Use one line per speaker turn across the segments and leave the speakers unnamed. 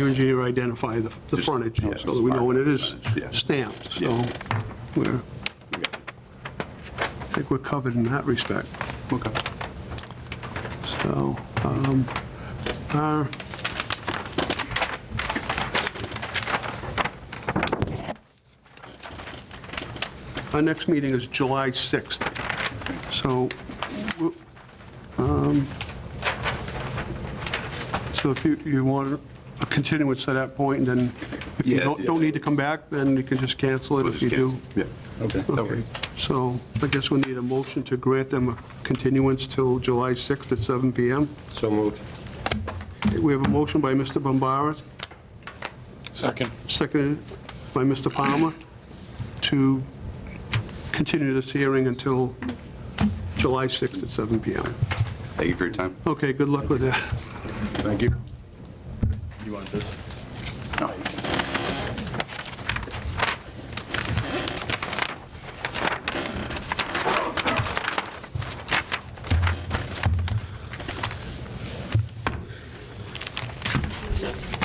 You engineer identify the the
Just-
frontage,
yeah,
so that we know when it is
frontage, yeah.
stamped, so
Yeah.
we're, I think we're covered in that respect.
Okay.
So, um, uh, our- our next meeting is July 6th, so, we'll- um, so if you, you want a continuance to that point, and then if you
Yeah,
don't,
yeah.
don't need to come back, then you can just cancel it
We'll
if
just
you do.
cancel. Yeah. Okay.
Okay, so I guess we need a motion to grant them a continuance till July 6th at 7 PM.
So moved.
We have a motion by Mr. Bombara,
Second.
seconded by Mr. Palmer, to continue this hearing until July 6th at 7 PM.
Thank you for your time.
Okay, good luck with that.
Thank you.
You want this?
No, you can-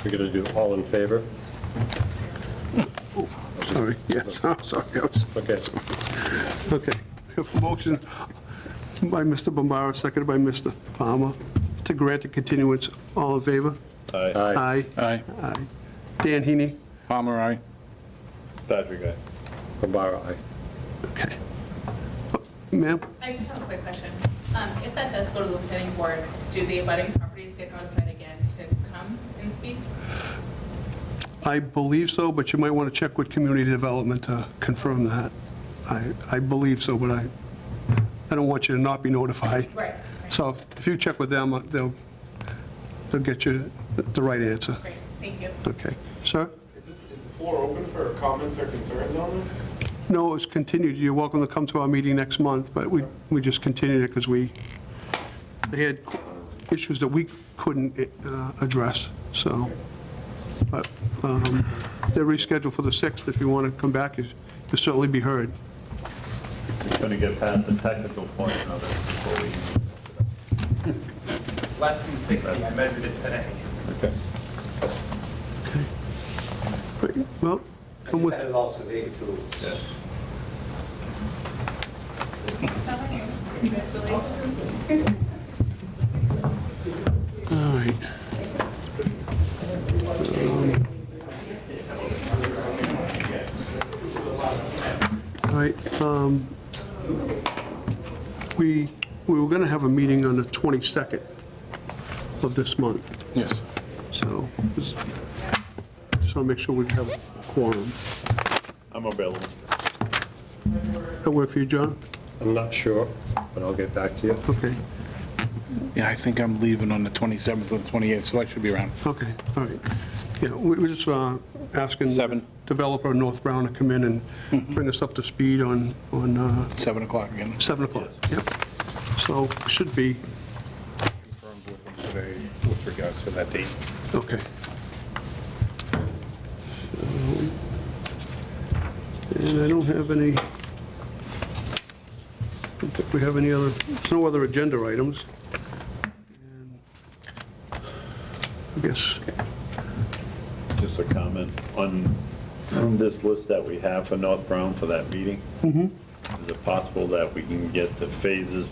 We're going to do all in favor?
Sorry, yes, I'm sorry. I was-
Okay.
Okay, we have a motion by Mr. Bombara, seconded by Mr. Palmer, to grant a continuance. All in favor?
Aye.
Aye.
Aye. Dan Heaney?
Palmer, aye.
Patrick, aye. Rambara, aye.
Okay. Ma'am?
I just have a quick question. Um, If that does go to the planning board, do the abutting properties get notified again to come and speak?
I believe so, but you might want to check with community development to confirm that. I, I believe so, but I, I don't want you to not be notified.
Right, right.
So if you check with them, uh, they'll, they'll get you the right answer.
Great, thank you.
Okay. Sir?
Is this, is the floor open for comments or concerns on this?
No, it's continued. You're welcome to come to our meeting next month, but we, we just continued it because we, they had issues that we couldn't uh, address, so. But um, they're rescheduled for the 6th. If you want to come back, you- you'll certainly be heard.
It's going to get past the technical point of it before we
Less than 60, I measured it today.
Great. Well, come
I
with,
have also very true.
Congratulations.
all right. Um, All right. um, We, we were going to have a meeting on the 22nd of this month.
Yes.
So, just just want to make sure we have a quorum.
I'm available.
That work for you, John?
I'm not sure, but I'll get back to you.
Okay,
Yeah, I think I'm leaving on the 27th or the 28th, so I should be around.
okay, all right. Yeah, we were just uh, asking.
Seven.
Developer North Brown to come in and bring us up to speed on, on uh,
7 o'clock again.
7 o'clock. Yep. So, should be,
Confirmed with them today with regards to that date.
okay. So, And I don't have any, I don't think we have any other, no other agenda items. And I guess
Just a comment on this list that we have for North Brown for that meeting. Is it possible that we can get the phases,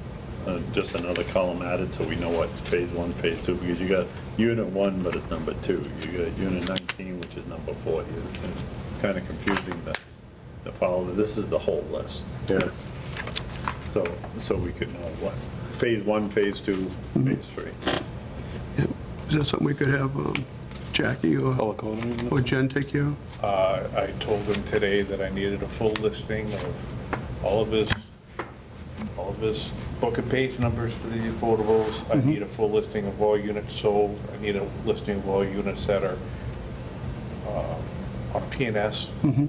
uh, just another column added so we know what phase one, phase two? Because you got unit one, but it's number two. You got unit 19, which is number four. It's Kind of confusing to to follow. This is the whole list.
Yeah.
So, so we could know what, phase one, phase two, phase three.
Yeah, Is that something we could have um, Jackie
Oh.
or or Jen take care of?
Uh, I told him today that I needed a full listing of all of his, all of his book and page numbers for the affordables. I need a full listing of all units sold. I need a listing of all units that are uh, on PNS.
Hmm. Mm-hmm,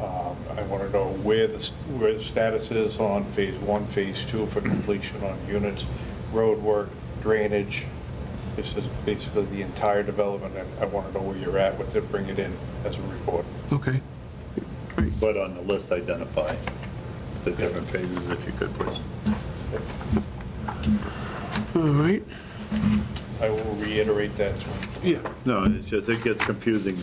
Um, I want to know where the, s- where the status is on phase one, phase two for completion on units, roadwork, drainage. This is basically the entire development, and I want to know where you're at with it, bring it in as a report.
Okay,
But on the list, identify the different phases if you could, please.
all right.
I will reiterate that to him.
Yeah.
No, it's just, it gets confusing